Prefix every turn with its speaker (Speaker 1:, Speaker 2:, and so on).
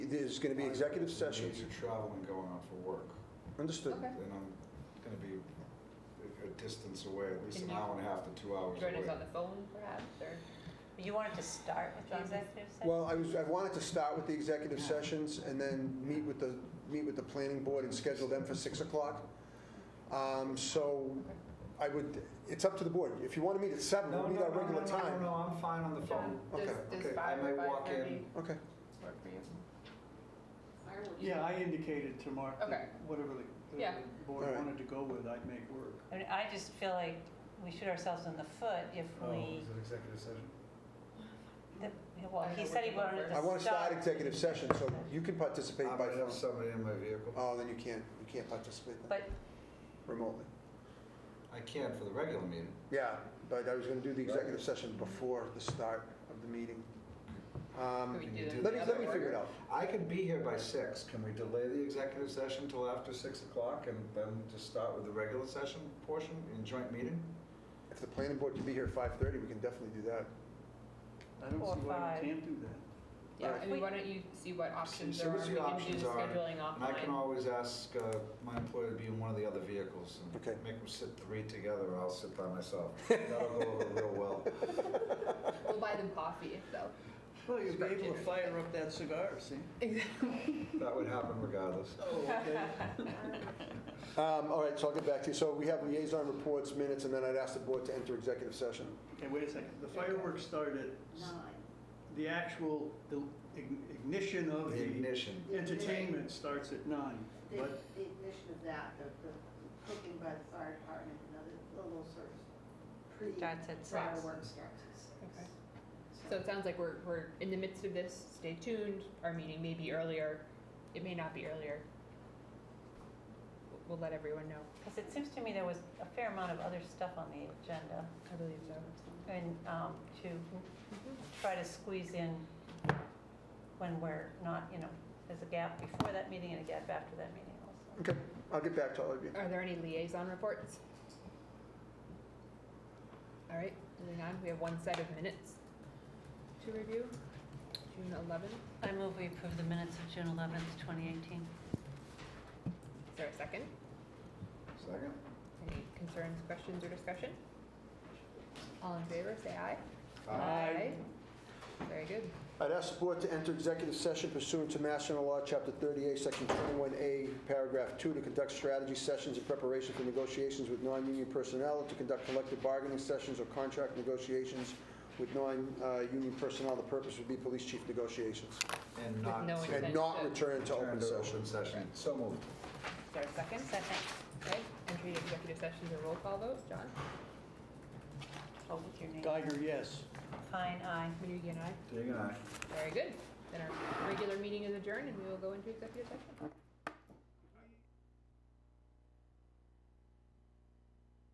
Speaker 1: there's going to be executive sessions.
Speaker 2: Major traveling going on for work,
Speaker 1: Understood.
Speaker 3: Okay.
Speaker 2: and I'm going to be a- a distance away, at least an
Speaker 4: Can you-
Speaker 2: hour and a half to two hours away.
Speaker 4: Join us on the phone perhaps, or?
Speaker 5: You wanted to start with the executive session?
Speaker 1: Well, I was, I wanted to start with the executive sessions and then meet with the, meet with the planning board and schedule them for 6 o'clock. Um, So I would, it's up to the board. If you want to meet at 7,
Speaker 2: No,
Speaker 1: we'll
Speaker 2: no,
Speaker 1: meet
Speaker 2: no,
Speaker 1: our
Speaker 2: no,
Speaker 1: regular
Speaker 2: no, no,
Speaker 1: time.
Speaker 2: no, I'm fine on the phone.
Speaker 4: John,
Speaker 1: Okay,
Speaker 4: does, does
Speaker 2: okay,
Speaker 4: five
Speaker 2: I
Speaker 4: or
Speaker 2: may walk
Speaker 4: five thirty
Speaker 2: in.
Speaker 1: Okay,
Speaker 4: work for you?
Speaker 6: Yeah, I indicated to Mark
Speaker 4: Okay.
Speaker 6: that whatever the-
Speaker 4: Yeah.
Speaker 6: the board
Speaker 1: Alright.
Speaker 6: wanted to go with, I'd make work.
Speaker 5: I mean, I just feel like we shoot ourselves in the foot if
Speaker 1: Oh.
Speaker 5: we,
Speaker 2: an Oh, executive session?
Speaker 5: the- well,
Speaker 4: I don't
Speaker 5: he
Speaker 4: know
Speaker 5: said he
Speaker 4: what you
Speaker 5: wanted
Speaker 4: want
Speaker 5: to start.
Speaker 1: I want to start executive session, so you can participate
Speaker 2: Uh, I
Speaker 1: by
Speaker 2: might have
Speaker 1: phone.
Speaker 2: somebody in my vehicle.
Speaker 1: Oh, then you can't, you can't participate then
Speaker 5: But,
Speaker 1: remotely.
Speaker 2: I can for the regular meeting.
Speaker 1: Yeah, but I was going to do the executive session before the start of the meeting. Um,
Speaker 4: Could we
Speaker 2: Can
Speaker 4: do
Speaker 2: you
Speaker 4: it
Speaker 2: do
Speaker 1: Let
Speaker 4: the
Speaker 1: me,
Speaker 4: other
Speaker 1: let me
Speaker 4: way?
Speaker 1: figure it out.
Speaker 2: I could be here by six. Can we delay the executive session till after six o'clock and then just start with the regular session portion in joint meeting?
Speaker 1: If the planning board can be here at 5:30, we can definitely do that.
Speaker 6: I don't
Speaker 5: Or
Speaker 6: see why
Speaker 5: five.
Speaker 6: we can't do that.
Speaker 4: Yeah,
Speaker 1: Alright.
Speaker 4: I mean, why don't you see what options
Speaker 2: see
Speaker 4: there are,
Speaker 2: what
Speaker 4: we
Speaker 2: the
Speaker 4: can do
Speaker 2: options are,
Speaker 4: scheduling
Speaker 2: And I can
Speaker 4: offline.
Speaker 2: always ask uh, my employer to be in one of the other vehicles and
Speaker 1: Okay.
Speaker 2: make them sit three together and I'll sit by myself. That'll go over real well.
Speaker 4: We'll buy them coffee, though.
Speaker 6: Well, you'll be able to
Speaker 4: Spectator.
Speaker 6: fire up that cigar, see?
Speaker 2: That would happen regardless.
Speaker 1: Um, All right, so I'll get back to you. So we have liaison reports, minutes, and then I'd ask the board to enter executive session.
Speaker 6: Okay, wait a second. The fireworks started, the actual the ign- ignition of
Speaker 2: The
Speaker 6: the
Speaker 2: ignition.
Speaker 6: entertainment starts at nine.
Speaker 7: The
Speaker 6: But
Speaker 7: the ignition of that, the the cooking by the fire department, and other the little sort of pre
Speaker 5: Starts at six.
Speaker 7: fireworks starts at six.
Speaker 4: Okay. So it sounds like we're, we're in the midst of this, stay tuned, our meeting may be earlier, it may not be earlier. We'll- We'll let everyone know,
Speaker 5: because it seems to me there was a fair amount of other stuff on the agenda,
Speaker 4: I believe so.
Speaker 5: and um, to try to squeeze in when we're not, you know, there's a gap before that meeting and a gap after that meeting also.
Speaker 1: Okay, I'll get back to all of you.
Speaker 4: Are there any liaison reports? All right, moving on, we have one set of minutes to review, June eleventh,
Speaker 5: I move we approve the minutes of June 11th, 2018.
Speaker 4: is there a second?
Speaker 2: Second?
Speaker 4: Any concerns, questions, or discussion? All in favor, say aye. Uh,
Speaker 5: Aye.
Speaker 4: Very good.
Speaker 1: I'd ask the board to enter executive session pursuant to Mass General Law, Chapter 38, Section 21A, Paragraph 2, to conduct strategy sessions in preparation for negotiations with non-union personnel, to conduct collective bargaining sessions or contract negotiations with non-union personnel. The purpose would be police chief negotiations.
Speaker 2: And not.
Speaker 4: no
Speaker 2: to
Speaker 4: intent.
Speaker 1: And not return to
Speaker 2: Turn
Speaker 1: open
Speaker 2: to
Speaker 1: session.
Speaker 2: open session. So moved.
Speaker 4: Is there a second?
Speaker 5: Second,
Speaker 4: Okay, entry into executive session, a roll call vote. John?
Speaker 5: hold Oh, with your name.
Speaker 6: Geiger, yes.
Speaker 5: Fine, aye.
Speaker 4: Minugi and I.
Speaker 2: Dig and I.
Speaker 4: Very good. Then our regular meeting is adjourned and we will go into executive session.